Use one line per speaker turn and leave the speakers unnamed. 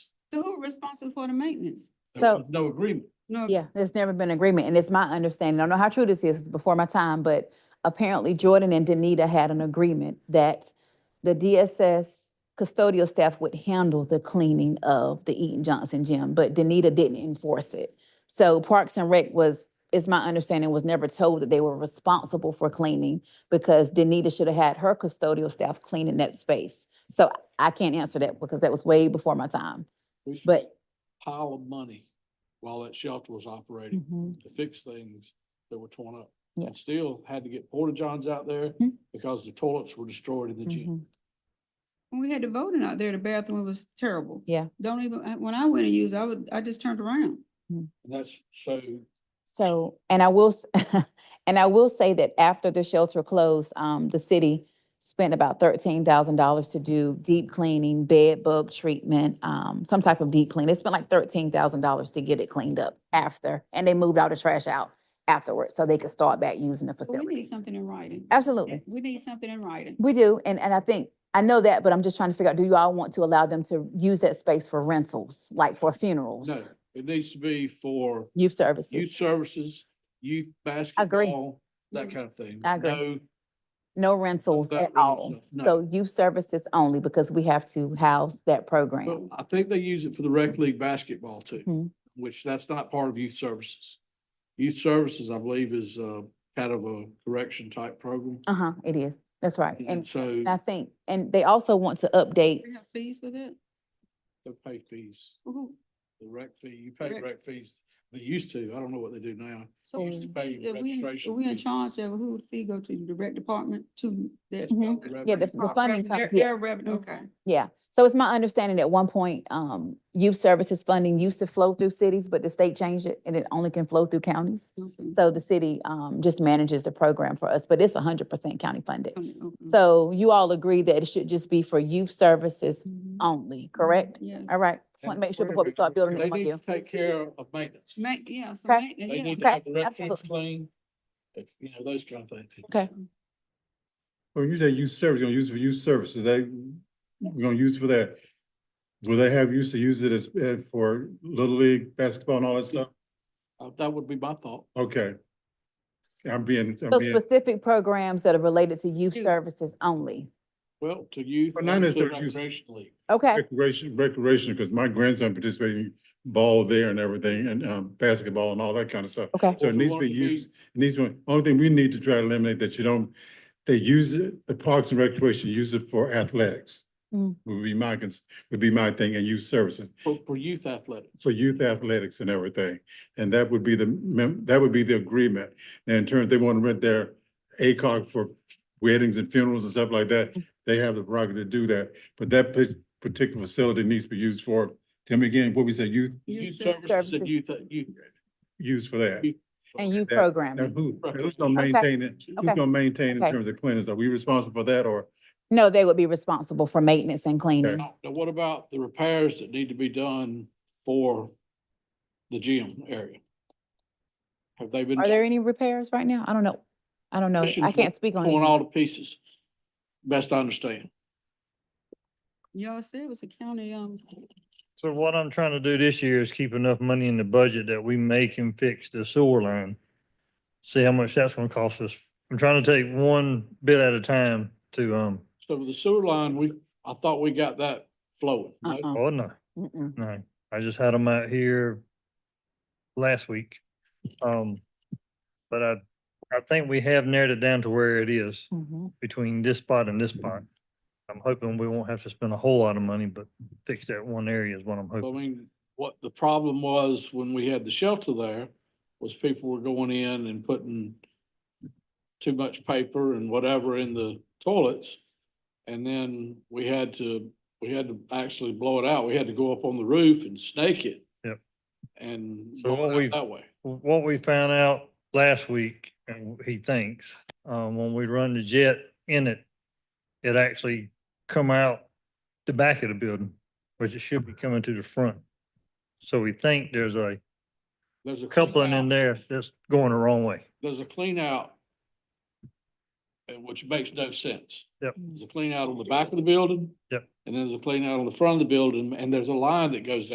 So who responsible for the maintenance?
So-
There was no agreement.
No,
Yeah, there's never been agreement, and it's my understanding, I don't know how true this is, it's before my time, but apparently Jordan and Danita had an agreement that the DSS custodial staff would handle the cleaning of the Eaton Johnson gym, but Danita didn't enforce it. So Parks and Rec was, is my understanding, was never told that they were responsible for cleaning because Danita should have had her custodial staff cleaning that space. So I can't answer that because that was way before my time.
We spent
But-
a Pile of money while that shelter was operating to fix things that were torn up.
Yeah.
And still had to get porta johns out there
Mhm.
because the toilets were destroyed in the gym.
Mhm.
when we had the voting out there, the bathroom was terrible.
Yeah.
Don't even, I- when I went to use, it, I would, I just turned around.
And that's so,
So, and I will, s- and I will say that after the shelter closed, um, the city spent about thirteen thousand dollars to do deep cleaning, bed bug treatment, um, some type of deep clean. They spent like thirteen thousand dollars to get it cleaned up after, and they moved all the trash out afterwards, so they could start back using the
But We need
facility.
something in writing.
Absolutely.
We need something in writing.
We do, and, and I think, I know that, but I'm just trying to figure out, do you all want to allow them to use that space for rentals, like for funerals?
no, it needs to be for
Youth
youth
services,
services, youth
agree. Mm-hmm.
basketball, that kind of thing.
I agree.
No,
no rentals
that
at
rental
all.
stuff, no.
So youth services only, because we have to house that
But
program.
I think they use it for the rec league basketball
Mhm.
too, which that's not part of youth services. Youth services, I believe, is uh kind of a correction type program.
Uh-huh, it is, that's right.
And
And
so
I think, and they also want to update,
We have fees with it?
they pay fees,
Who-
the rec fee, you pay
Rec-
rec fees. They used to, I don't know what they do now.
So
used to
who-
pay
if we, in- if
registration
we in
fee.
charge of, it, who would fee go to, the direct department to that?
Mhm.
Okay.
Rec-
yeah, the, the
Prop-
funding
revenue-
comes,
their-
yeah.
their revenue,
Mhm.
okay.
Yeah, so it's my understanding at one point, um, youth services funding used to flow through cities, but the state changed it and it only can flow through counties.
Okay.
Mm-hmm. So the city, um, just manages the program for us, but it's hundred percent county funded.
Okay, okay.
Mm-hmm.
So you all agree that it should just be for youth services
Mhm.
only, um, correct?
Yeah.
All right, just
And
want to make sure
wait a
before we
minute,
start building
They
it on
need to
you.
take care of maintenance.
Ma- yeah, so
Okay.
maintenance,
They
yeah.
need to have the
Okay,
restrooms
absolutely.
clean. If, you know, those kind of things.
Okay,
Well, you say youth service, you're gonna use it for youth services, they, we're gonna use it for that. Will they have used to use it as, uh, for Little League basketball and all that stuff?
Uh, That would be my thought.
Okay. I'm being,
so
I'm being,
specific programs that are related to youth
Youth.
services only.
Well, to youth.
Well, not
and to
necessarily youth.
recreation league.
Okay,
recreation, recreation, because my grandson participated in ball there and everything, and, um, basketball and all that kind of stuff.
okay,
So it
Well, we
needs to
want
be
it to be-
used, it needs to, only thing we need to try to eliminate that you don't, they use it, the Parks and Recreation use it for athletics.
Mm.
Would be my, cons- would be my thing, and youth services.
For, for youth athletics.
for youth athletics and everything. And that would be the, mem- that would be the agreement. And in terms, they want to rent their ACOG for weddings and funerals and stuff like that. They have the prerogative to do that, but that pa- particular facility needs to be used for, tell me again, what we say, youth,
The
Youth
Youth
ser-
services and
services.
youth, youth.
used for that.
and youth
that- Now,
programming.
who,
Right.
who's gonna
Okay.
maintain it? Who's
Okay.
gonna maintain in
Okay.
terms of cleanliness? Are we responsible for that or?
No, they would be responsible for maintenance and cleaning.
Now, now what about the repairs that need to be done for the gym area? Have they been
Are there any repairs right now? I don't know. I don't know. I
Questions
can't speak on
torn
it.
all to pieces? Best I understand.
Y'all said it was a county, um,
So what I'm trying to do this year is keep enough money in the budget that we make and fix the sewer line. See how much that's gonna cost us. I'm trying to take one bit at a time to, um,
So with the sewer line, we, I thought we got that flowing. no?
Uh-uh.
oh, no,
Mm-mm.
no. I just had them out here last week. Um, but I, I think we have narrowed it down to where it is
Mhm.
between this spot and this spot. I'm hoping we won't have to spend a whole lot of money, but fix that one area is what I'm
I
hoping.
mean, what the problem was when we had the shelter there was people were going in and putting too much paper and whatever in the toilets. And then we had to, we had to actually blow it out. We had to go up on the roof and snake it.
Yep.
And
So
blow
what
it
we've-
out that way.
what we found out last week, and he thinks, um, when we run the jet in it, it actually come out the back of the building, which it should be coming to the front. So we think there's a
There's a. clean
coupling in
out-
there that's going the wrong way.
There's a clean out. uh, Which makes no sense.
Yep.
There's a clean out on the back of the building.
Yep.
And there's a clean out on the front of the building and there's a line that goes